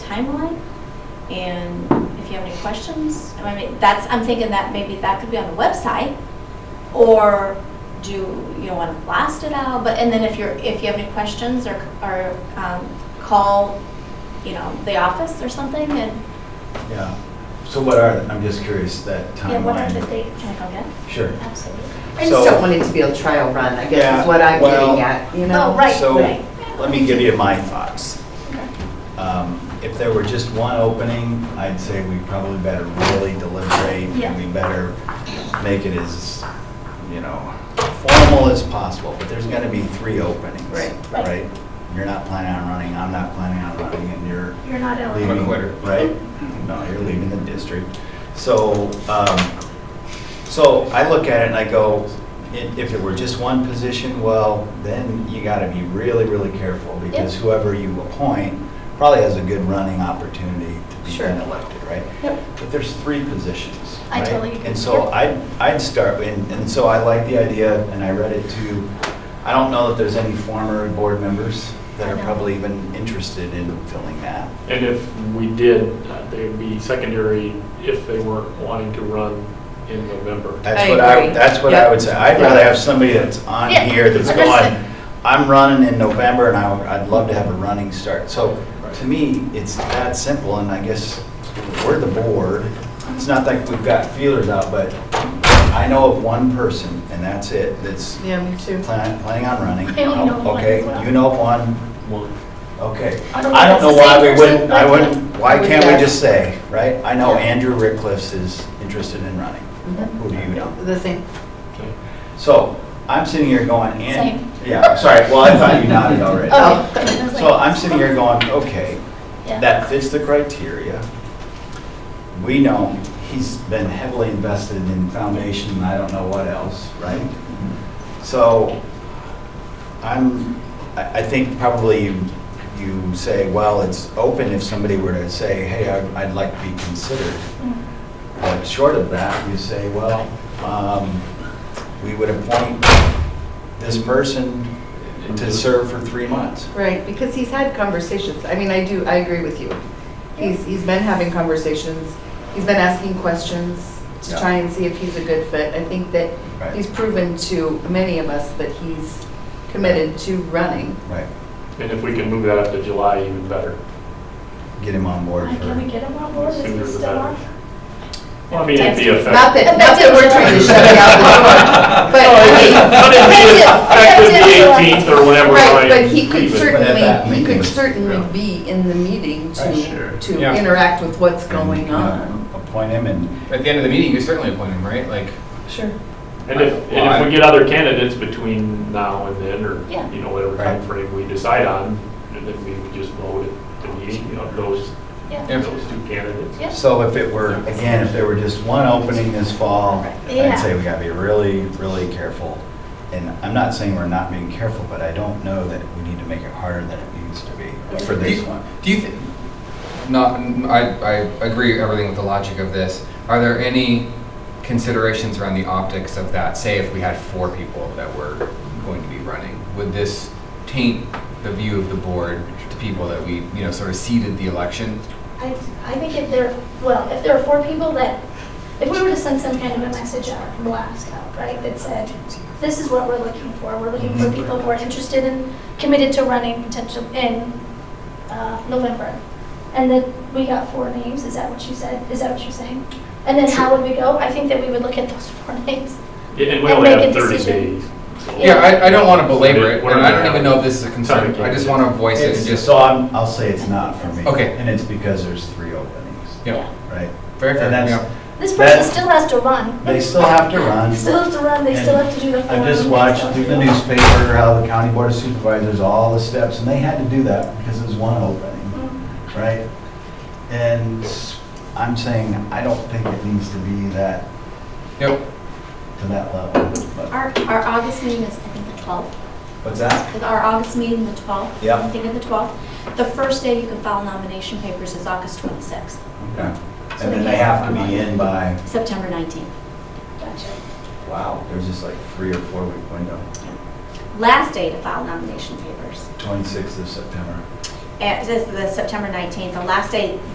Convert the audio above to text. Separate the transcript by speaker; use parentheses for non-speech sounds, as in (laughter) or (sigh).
Speaker 1: timeline. And if you have any questions, I mean, that's, I'm thinking that maybe that could be on the website. Or do you know, want to blast it out? But, and then if you're, if you have any questions or, or um, call, you know, the office or something and,
Speaker 2: Yeah. So what are, I'm just curious, that timeline?
Speaker 3: Yeah, what are the dates?
Speaker 1: can I go get it?
Speaker 2: Sure.
Speaker 3: Absolutely.
Speaker 4: I just
Speaker 2: So-
Speaker 4: don't want it to be a trial run, I guess
Speaker 2: Yeah,
Speaker 4: is what I'm
Speaker 2: well-
Speaker 4: getting at, you know?
Speaker 1: Oh, right,
Speaker 2: So,
Speaker 1: right.
Speaker 2: let me give you my thoughts.
Speaker 1: Okay.
Speaker 2: Um, If there were just one opening, I'd say we probably better really deliberate,
Speaker 1: Yeah.
Speaker 2: and we better make it as, you know, formal as possible, but there's gonna be three openings.
Speaker 4: Right.
Speaker 1: Right.
Speaker 2: Right? You're not planning on running, I'm not planning on running, and you're
Speaker 3: You're not eligible.
Speaker 2: leaving,
Speaker 5: quitter.
Speaker 2: right? No, you're leaving the district. So, um, so I look at it and I go, i- if it were just one position, well, then you gotta be really, really careful because
Speaker 1: Yep.
Speaker 2: whoever you appoint probably has a good running opportunity to be
Speaker 4: Sure.
Speaker 2: then elected, right?
Speaker 1: Yep.
Speaker 2: But there's three positions,
Speaker 3: I
Speaker 2: right?
Speaker 3: totally agree.
Speaker 2: And so
Speaker 3: Yep.
Speaker 2: I'd, I'd start, and, and so I like the idea, and I read it too. I don't know that there's any former board members that
Speaker 3: I
Speaker 2: are
Speaker 3: know.
Speaker 2: probably even interested in filling that.
Speaker 5: And if we did, uh, they'd be secondary if they weren't wanting to run in November.
Speaker 2: That's
Speaker 4: I
Speaker 2: what I,
Speaker 4: agree.
Speaker 2: that's what I
Speaker 4: Yep.
Speaker 2: would say. I'd rather have somebody that's on
Speaker 3: Yeah,
Speaker 2: here that's
Speaker 3: understood.
Speaker 2: going, I'm running in November and I, I'd love to have a running start. So to me, it's that simple and I guess we're the board. It's not like we've got feelers out, but I know of one person and that's it, that's
Speaker 4: Yeah, me too.
Speaker 2: plan- planning on running.
Speaker 3: I only know of one as well.
Speaker 2: Okay, you know of one,
Speaker 5: One.
Speaker 2: okay.
Speaker 3: I don't
Speaker 2: I don't
Speaker 3: know if
Speaker 2: know
Speaker 3: it's the
Speaker 2: why
Speaker 3: same
Speaker 2: we
Speaker 3: person,
Speaker 2: wouldn't,
Speaker 3: but-
Speaker 2: I wouldn't, why
Speaker 4: Would
Speaker 2: can't we
Speaker 4: guess.
Speaker 2: just say, right? I know
Speaker 3: Yeah.
Speaker 2: Andrew Rickliffs is interested in running. Who do you know?
Speaker 4: Mm-hmm. The same.
Speaker 5: Okay.
Speaker 2: So I'm sitting here going, and.
Speaker 3: Same.
Speaker 2: Yeah, sorry, well, I thought you nodded already.
Speaker 3: Oh. I was like-
Speaker 2: So I'm sitting here going, okay,
Speaker 3: Yeah.
Speaker 2: that fits the criteria. We know he's been heavily invested in foundation, and I don't know what else, right? So I'm, I, I think probably you- you say, well, it's open if somebody were to say, hey, I- I'd like to be considered.
Speaker 3: Mm.
Speaker 2: But short of that, you say, well, um, we would appoint this person to serve for three months.
Speaker 4: Right, because he's had conversations. I mean, I do, I agree with you. He's, he's been having conversations, he's been asking questions to
Speaker 2: Yeah.
Speaker 4: try and see if he's a good fit. I think that
Speaker 2: Right.
Speaker 4: he's proven to many of us that he's committed to running.
Speaker 2: Right,
Speaker 5: And if we can move that up to July, even better.
Speaker 2: get him on board
Speaker 3: Why
Speaker 2: for,
Speaker 3: Can we get him on board? Is
Speaker 5: Sooner
Speaker 3: he
Speaker 5: the
Speaker 3: still
Speaker 5: better.
Speaker 3: on?
Speaker 5: Well, I mean, it'd be effective.
Speaker 4: Not that, not that we're trying to shut it out
Speaker 2: (laughs)
Speaker 4: the door,
Speaker 2: Oh,
Speaker 4: but (laughs) I mean,
Speaker 5: But it'd be
Speaker 3: Effective July.
Speaker 5: effective the 18th or whenever.
Speaker 4: Right,
Speaker 5: I
Speaker 4: but he could
Speaker 5: leave it.
Speaker 2: But at that
Speaker 4: certainly, he
Speaker 2: meeting
Speaker 4: could
Speaker 2: was-
Speaker 4: certainly
Speaker 5: yeah.
Speaker 4: be in the meeting
Speaker 2: Right,
Speaker 5: sure.
Speaker 4: to, to
Speaker 6: Yeah.
Speaker 4: interact with what's
Speaker 2: and,
Speaker 4: going
Speaker 2: you know,
Speaker 4: on.
Speaker 2: Appoint him and,
Speaker 6: At the end of the meeting, you certainly appoint him, right? Like,
Speaker 4: Sure.
Speaker 5: And if, and if we get other candidates between now and then, or,
Speaker 3: Yeah.
Speaker 5: you know, whatever
Speaker 2: Right.
Speaker 5: timeframe we decide on, and then we would just vote at the meeting of those,
Speaker 3: Yeah.
Speaker 6: Yeah.
Speaker 5: those two candidates.
Speaker 3: Yeah.
Speaker 2: so if it were, again, if there were just one opening this fall,
Speaker 3: Yeah.
Speaker 2: I'd say we gotta be really, really careful. And I'm not saying we're not being careful, but I don't know that we need to make it harder than it needs to be for
Speaker 6: do
Speaker 2: this
Speaker 6: you-
Speaker 2: one.
Speaker 6: Do you think? Not, I, I agree everything with the logic of this. Are there any considerations around the optics of that? Say if we had four people that were going to be running, would this taint the view of the board to people that we, you know, sort of seeded the election?
Speaker 3: I, I think if there, well, if there are four people that, if we were to send some kind of a message out, a blast out, right, that said, this is what we're looking for, we're looking
Speaker 2: Mm-hmm.
Speaker 3: for people who are interested in, committed to running potential in uh, November. And then we got four names, is that what you said, is that what you're saying? And then how would we go? I think that we would look at those (laughs) four names.
Speaker 5: Yeah, And we
Speaker 3: And
Speaker 5: only
Speaker 3: make
Speaker 5: have
Speaker 3: a
Speaker 5: 30
Speaker 3: decision.
Speaker 5: days. so-
Speaker 6: Yeah, I, I don't want to belabor
Speaker 5: Submit
Speaker 6: it,
Speaker 5: one
Speaker 6: and I
Speaker 5: and a
Speaker 6: don't even
Speaker 5: half.
Speaker 6: know if this is a concern.
Speaker 5: Sorry,
Speaker 6: I just
Speaker 5: Kate.
Speaker 6: want to voice it and
Speaker 2: It's-
Speaker 6: just,
Speaker 2: So I'm, I'll say it's not for me.
Speaker 6: Okay.
Speaker 2: And it's because there's three openings,
Speaker 6: yeah,
Speaker 2: right?
Speaker 6: very fair,
Speaker 2: And that's-
Speaker 6: yeah.
Speaker 3: This
Speaker 2: That-
Speaker 3: person still has to run.
Speaker 2: They still have to run.
Speaker 3: Still have to run, they still have to do the form.
Speaker 2: I just
Speaker 3: they
Speaker 2: watched
Speaker 3: still have
Speaker 2: through
Speaker 3: to
Speaker 2: the
Speaker 3: do-
Speaker 2: newspaper how the county board of supervisors, all the steps, and they had to do that because it was one opening,
Speaker 3: Mm.
Speaker 2: right? And I'm saying, I don't think it needs to be that,
Speaker 6: Yep.
Speaker 2: to that level. but-
Speaker 1: Our, our August meeting is, I think, the 12th.
Speaker 2: What's that?
Speaker 1: Like, Our August meeting, the 12th.
Speaker 2: Yeah.
Speaker 1: I'm thinking the 12th. The first day you can file nomination papers is August 26th,
Speaker 2: Okay. And then they have to be in by,
Speaker 1: September 19th.
Speaker 3: Gotcha.
Speaker 2: wow, there's just like three or four week window,
Speaker 1: Last day to file nomination papers eh,
Speaker 2: 26th of September.
Speaker 1: and this is the September 19th, the last day